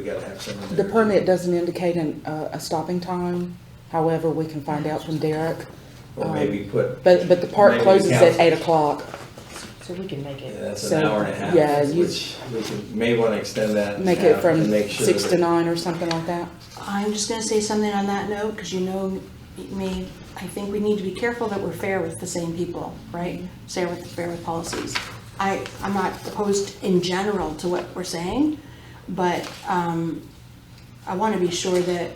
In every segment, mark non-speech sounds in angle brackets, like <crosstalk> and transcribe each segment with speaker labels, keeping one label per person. Speaker 1: We gotta have some in
Speaker 2: The
Speaker 1: there.
Speaker 2: permit doesn't indicate an, uh, a stopping time, however, we can find out from Derek.
Speaker 1: Or maybe put,
Speaker 2: um, But, but the park
Speaker 1: Maybe
Speaker 2: closes at
Speaker 1: council.
Speaker 2: eight o'clock,
Speaker 3: So we can make
Speaker 1: yeah,
Speaker 3: it,
Speaker 1: that's an
Speaker 2: so,
Speaker 1: hour and a half.
Speaker 2: yeah, you-
Speaker 1: Which, which we may wanna extend that.
Speaker 2: make it
Speaker 1: out
Speaker 2: from
Speaker 1: and make sure
Speaker 2: six
Speaker 1: that-
Speaker 2: to nine or something like that.
Speaker 3: I'm just gonna say something on that note, because you know me, I think we need to be careful that we're fair with the same people, right? Fair with, fair with policies. I, I'm not opposed in general to what we're saying, but, um, I wanna be sure that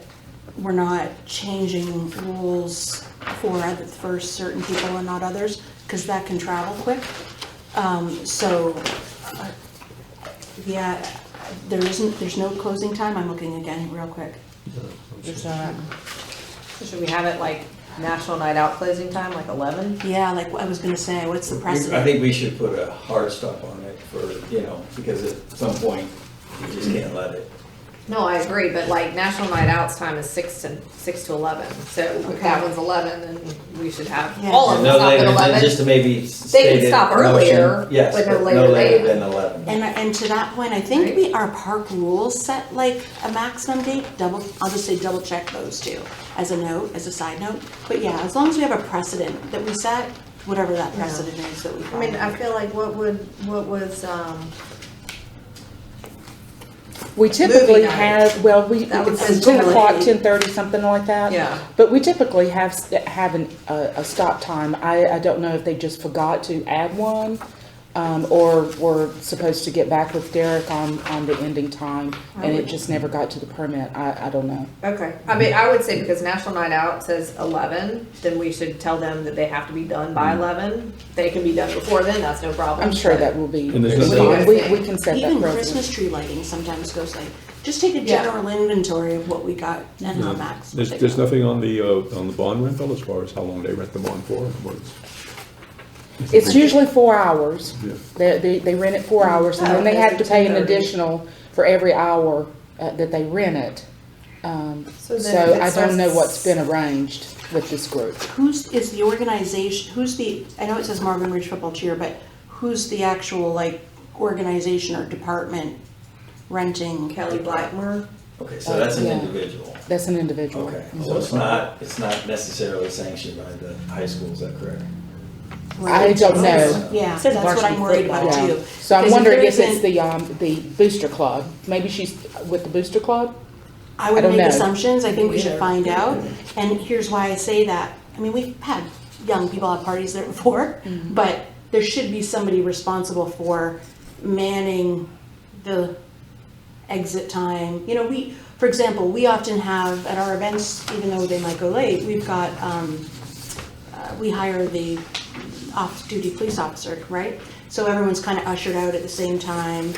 Speaker 3: we're not changing rules for, other- for certain people and not others, because that can travel quick. Um, so, uh, yeah, there isn't, there's no closing time, I'm looking again real quick.
Speaker 4: There's not. So should we have it like National Night Out closing time, like eleven?
Speaker 3: Yeah, like I was gonna say, what's the
Speaker 1: I
Speaker 3: precedent?
Speaker 1: think we should put a hard stop on it for, you know, because at some point, you just can't let it.
Speaker 4: No, I agree, but like National Night Out's time is six to, six to eleven, so if that
Speaker 3: Okay.
Speaker 4: one's eleven, then we should have
Speaker 3: Yeah.
Speaker 4: all of
Speaker 1: And
Speaker 4: them
Speaker 1: no
Speaker 4: Oh, stop at
Speaker 1: later than-
Speaker 4: eleven.
Speaker 1: Just to maybe
Speaker 4: They can
Speaker 1: state it.
Speaker 4: stop
Speaker 1: motion.
Speaker 4: earlier,
Speaker 1: Yes,
Speaker 4: but
Speaker 1: but
Speaker 4: no
Speaker 1: no
Speaker 4: later
Speaker 1: later
Speaker 4: than-
Speaker 1: than eleven.
Speaker 3: And, uh, and to that point, I think
Speaker 4: Right.
Speaker 3: we, our park rules set like a maximum date, double, I'll just say double check those two as a note, as a side note. But yeah, as long as we have a precedent that we set, whatever that
Speaker 4: Yeah.
Speaker 3: precedent is that we
Speaker 4: I mean, I
Speaker 3: follow.
Speaker 4: feel like what would, what was, um,
Speaker 2: We typically
Speaker 4: night.
Speaker 2: have, well, we,
Speaker 4: That would
Speaker 2: it's
Speaker 4: be
Speaker 2: ten o'clock,
Speaker 3: great.
Speaker 2: ten thirty, something like that.
Speaker 4: Yeah.
Speaker 2: But we typically have, s- have an, a, a stop time. I, I don't know if they just forgot to add one, um, or were supposed to get back with Derek on, on the ending time, and it just never got to the permit. I, I don't know.
Speaker 4: okay, I mean, I would say because National Night Out says eleven, then we should tell them that they have to be done by
Speaker 1: Mm.
Speaker 4: eleven. They can be done before then, that's no problem.
Speaker 2: I'm sure
Speaker 4: but-
Speaker 2: that will be,
Speaker 5: And there's
Speaker 4: no-
Speaker 2: we, we can set that
Speaker 3: Even
Speaker 2: precedent.
Speaker 3: Christmas tree lighting sometimes goes like, just take a
Speaker 4: Yeah.
Speaker 3: general inventory of what we got and how max.
Speaker 5: There's,
Speaker 3: they
Speaker 5: there's
Speaker 3: go.
Speaker 5: nothing on the, uh, on the bond rental as far as how long they rent the bond for, and what it's-
Speaker 2: It's usually four hours.
Speaker 5: Yeah.
Speaker 2: They, they, they rent it four hours, and then they
Speaker 4: okay,
Speaker 2: have
Speaker 4: so
Speaker 2: to pay an
Speaker 4: 10:30.
Speaker 2: additional for every hour, uh, that they rent it. Um,
Speaker 4: So
Speaker 2: so
Speaker 4: then if it
Speaker 2: I don't know
Speaker 4: starts-
Speaker 2: what's been arranged with this group.
Speaker 3: Who's, is the organization, who's the, I know it says Marvin Ridge Football Cheer, but who's the actual, like, organization or department renting?
Speaker 4: Kelly Blackmore.
Speaker 1: Okay, so that's an
Speaker 2: Yeah.
Speaker 1: individual.
Speaker 2: That's an individual.
Speaker 1: Oh, Okay, so it's not, it's not necessarily sanctioned by the high school, is that correct?
Speaker 2: I don't know.
Speaker 3: Yeah,
Speaker 6: It
Speaker 3: that's
Speaker 6: says
Speaker 3: what I'm
Speaker 6: varsity
Speaker 3: worried
Speaker 6: football.
Speaker 3: about
Speaker 2: Yeah.
Speaker 3: too.
Speaker 2: So I'm
Speaker 3: Because
Speaker 2: wondering
Speaker 3: there
Speaker 2: if it's
Speaker 3: isn't-
Speaker 2: the, um, the booster club. Maybe she's with the booster club?
Speaker 3: I
Speaker 2: I
Speaker 3: would
Speaker 2: don't
Speaker 3: make
Speaker 2: know.
Speaker 3: assumptions, I think we should
Speaker 4: Either.
Speaker 3: find out, and here's why I say that. I mean, we've had young people have parties there <laughs> before,
Speaker 2: Mm-hmm.
Speaker 3: but there should be somebody responsible for manning the exit time. You know, we, for example, we often have at our events, even though they might go late, we've got, um, uh, we hire the off-duty police officer, right? So everyone's kind of ushered out at the same time.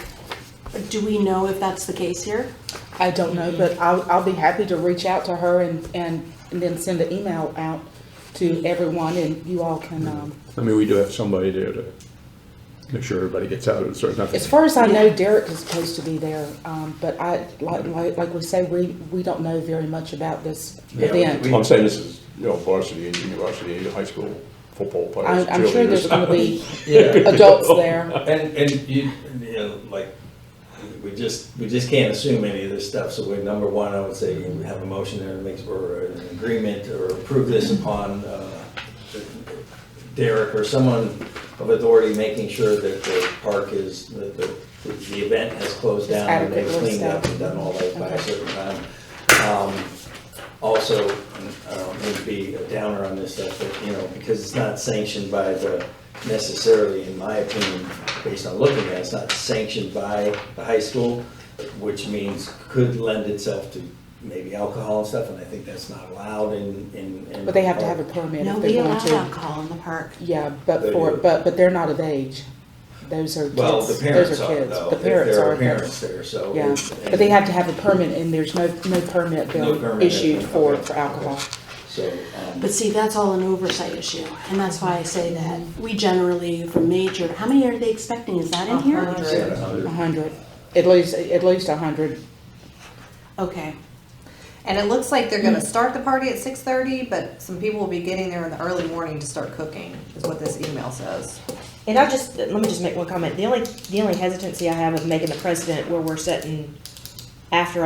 Speaker 3: Do we know if that's the case here?
Speaker 2: I don't know, but I'll, I'll be happy to reach out to her and, and, and then send an email out to everyone and you all can, um,
Speaker 5: I mean, we do have somebody there to make sure everybody gets out of it, so it's nothing.
Speaker 2: as far as I know, Derek is supposed to be there, um, but I, like, like, like we say, we, we don't know very much about this
Speaker 1: Yeah, we-
Speaker 2: event.
Speaker 1: we-
Speaker 5: I'm saying this is, you know, varsity, junior varsity, high school football
Speaker 2: I,
Speaker 5: players,
Speaker 2: I'm sure there's
Speaker 5: cheerleaders.
Speaker 2: gonna
Speaker 5: <laughs>
Speaker 2: be
Speaker 1: <laughs> Yeah.
Speaker 2: adults <laughs> there.
Speaker 1: And, and you, you know, like, we just, we just can't assume any of this stuff, so we, number one, I would say, we have a motion there that makes, or an agreement, or approve this upon, uh, Derek or someone of authority making sure that the park is, that the, the event has closed down, and they've
Speaker 2: adequately
Speaker 1: cleaned up and done all that by a certain time. Um, Also, um, would be a downer on this stuff, but, you know, because it's not sanctioned by the, necessarily, in my opinion, based on looking at, it, it's not sanctioned by the high school, which means could lend itself to maybe alcohol and stuff, and I think that's not allowed in, in. in-
Speaker 2: But they have to have a permit
Speaker 3: No,
Speaker 2: if
Speaker 3: we
Speaker 2: they
Speaker 3: allow
Speaker 2: want to.
Speaker 3: alcohol in the park.
Speaker 2: Yeah, but
Speaker 1: They
Speaker 2: for,
Speaker 1: do.
Speaker 2: but, but they're not of age. Those are kids.
Speaker 1: Well, the parents
Speaker 2: Those are
Speaker 1: are,
Speaker 2: kids.
Speaker 1: though.
Speaker 2: The
Speaker 1: if
Speaker 2: parents
Speaker 1: there
Speaker 2: are.
Speaker 1: Parents there, so.
Speaker 2: Yeah, but they have to have a permit and there's no, no permit
Speaker 1: No
Speaker 2: bill
Speaker 1: permit,
Speaker 2: issued
Speaker 1: okay,
Speaker 2: for,
Speaker 1: okay.
Speaker 2: for alcohol.
Speaker 1: So, um,
Speaker 3: But see, that's all an oversight issue, and that's why I say
Speaker 2: Mm-hmm.
Speaker 3: that we generally, for major, how many are they expecting? Is that in here?
Speaker 4: Uh-huh.
Speaker 1: seven hundred.
Speaker 2: A hundred, at least, at least a hundred.
Speaker 3: Okay,
Speaker 4: And it looks like they're gonna start the party at six thirty, but some people will be getting there in the early morning to start cooking, is what this email says.
Speaker 6: And I just, let me just make one comment. The only, the only hesitancy I have of making the precedent where we're setting after